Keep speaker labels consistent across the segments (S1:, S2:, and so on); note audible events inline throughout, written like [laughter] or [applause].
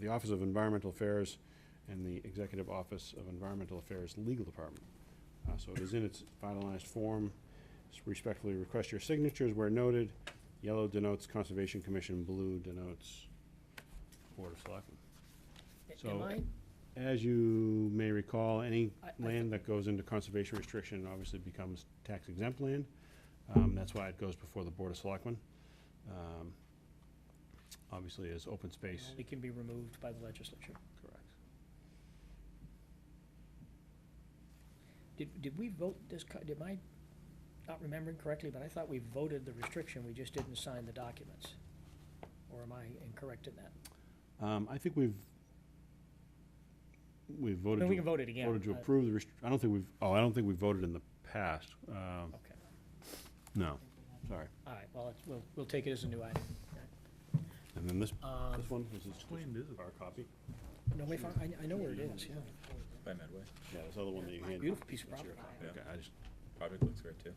S1: the Office of Environmental Affairs and the Executive Office of Environmental Affairs Legal Department. Uh, So it is in its finalized form. S- Respectfully request your signatures where noted. Yellow denotes Conservation Commission, blue denotes Board of Selectmen. So-
S2: Am I,
S1: As you may recall, any
S2: I- I thought-
S1: land that goes into conservation restriction obviously becomes tax exempt land. Um, That's why it goes before the Board of Selectmen. Um, Obviously, as open space.
S2: it can be removed by the legislature.
S1: Correct.
S2: Did, did we vote this, co- did I, not remembering correctly, but I thought we voted the restriction, we just didn't sign the documents? Or am I incorrect in that?
S1: Um, I think we've, we've
S2: I
S1: voted
S2: mean, we can
S1: to,
S2: vote it again.
S1: voted to
S2: uh,
S1: approve the, restr- I don't think we've, oh, I don't think we voted in the past. Um,
S2: Okay,
S1: No, sorry.
S2: all right, well, it's, we'll, we'll take it as a new item.
S1: And then this,
S2: Um,
S1: this one, this is
S3: Explained, is it?
S1: our copy.
S2: No, we found, I, I know where it is, yeah.
S4: by Medway.
S1: Yeah, this other one that you handed.
S2: Beautiful piece of
S1: That's your
S2: property.
S1: copy. Okay, I just,
S4: Project looks great too.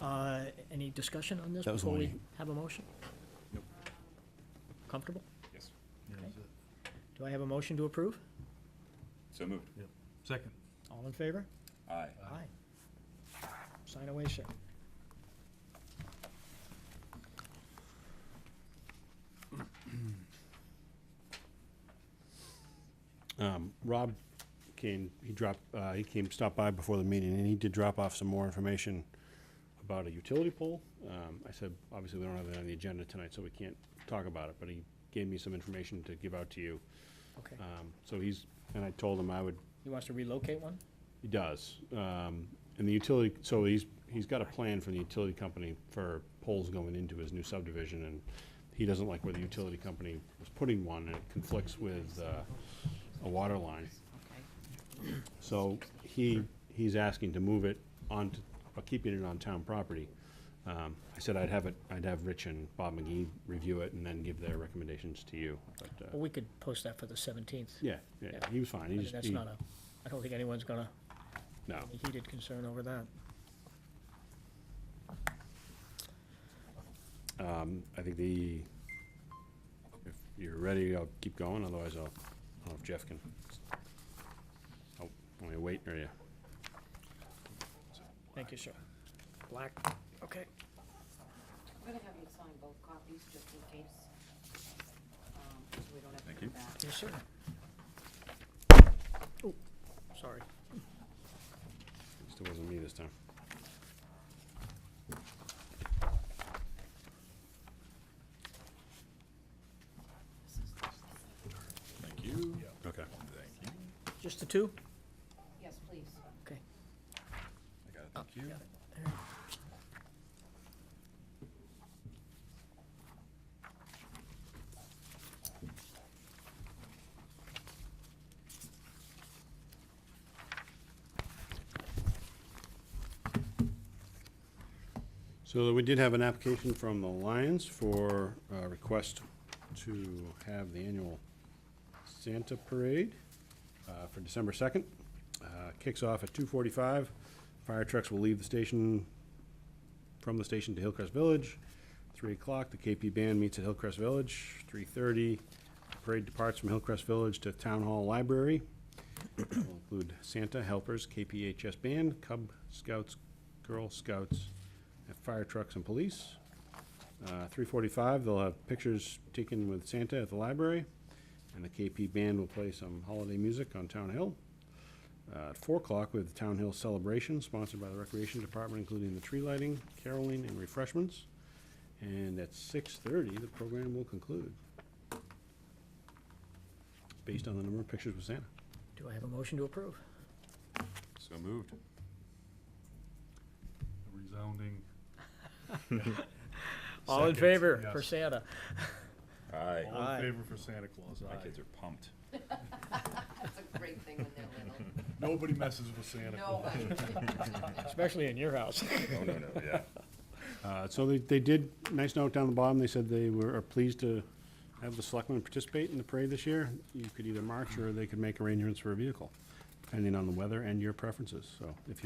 S2: Uh, any discussion on this
S1: That was the
S2: before we
S1: one
S2: have a motion?
S4: Nope.
S2: Comfortable?
S4: Yes.
S3: Yeah, is it?
S2: Do I have a motion to approve?
S4: So moved.
S3: Second.
S2: All in favor?
S4: Aye.
S2: Aye. Sign away, sir.
S1: Um, Rob came, he dropped, uh, he came, stopped by before the meeting, and he did drop off some more information about a utility pole. Um, I said, obviously, we don't have it on the agenda tonight, so we can't talk about it, but he gave me some information to give out to you.
S2: Okay.
S1: Um, so he's, and I told him I would,
S2: He wants to relocate one?
S1: he does. Um, and the utility, so he's, he's got a plan from the utility company for poles going into his new subdivision, and he doesn't like where the utility company was putting one, and it conflicts with, uh, a water line. So he, he's asking to move it on, t- or keeping it on town property. Um, I said I'd have it, I'd have Rich and Bob McGee review it and then give their recommendations to you, but, uh,
S2: Well, we could post that for the seventeenth.
S1: yeah, yeah, he was fine,
S2: Oh. I
S1: he
S2: mean,
S1: just,
S2: that's
S1: he-
S2: not a, I don't think anyone's gonna,
S1: no.
S2: be heated concern over that.
S1: Um, I think the, if you're ready, I'll keep going, otherwise I'll, I don't know if Jeff can. Oh, want me to wait, or you?
S2: Thank you, sir. Black, okay.
S5: I'm gonna have you sign both copies, just in case, um, so we don't have to
S4: Thank
S5: come
S4: you.
S2: Yes,
S5: back.
S2: sir. Oh, sorry.
S1: Still wasn't me this time.
S4: Thank you.
S1: Okay.
S4: Thank you.
S2: Just the two?
S5: Yes, please.
S2: Okay.
S4: I got it, thank you.
S2: got
S1: So we did have an application from the Lions for a request to have the annual Santa Parade uh, for December 2nd. Uh, Kicks off at 2:45. Fire trucks will leave the station, from the station to Hillcrest Village. 3 o'clock, the KP Band meets at Hillcrest Village. 3:30, the parade departs from Hillcrest Village to Town Hall Library. It will include Santa, helpers, KPHS Band, Cub Scouts, Girl Scouts, and fire trucks and police. Uh, 3:45, they'll have pictures taken with Santa at the library, and the KP Band will play some holiday music on Town Hill. Uh, At 4 o'clock, we have the Town Hill Celebration, sponsored by the Recreation Department, including the tree lighting, caroling, and refreshments. And at 6:30, the program will conclude, based on the number of pictures with Santa.
S2: Do I have a motion to approve?
S4: So moved.
S3: Resounding.
S2: All in
S3: Second,
S2: favor
S3: yes.
S2: for Santa?
S4: Aye.
S3: All
S2: Aye.
S3: in favor for Santa Claus,
S4: My kids
S3: aye.
S4: are pumped.
S5: That's a great thing when they're little.
S3: Nobody messes with Santa Claus.
S5: Nobody. [laughs]
S2: Especially in your house.
S4: Oh, no, no, yeah.
S1: Uh, So they, they did, nice note down the bottom, they said they were are pleased to have the selectmen participate in the parade this year. You could either march or they could make arrangements for a vehicle, depending on the weather and your preferences, so if you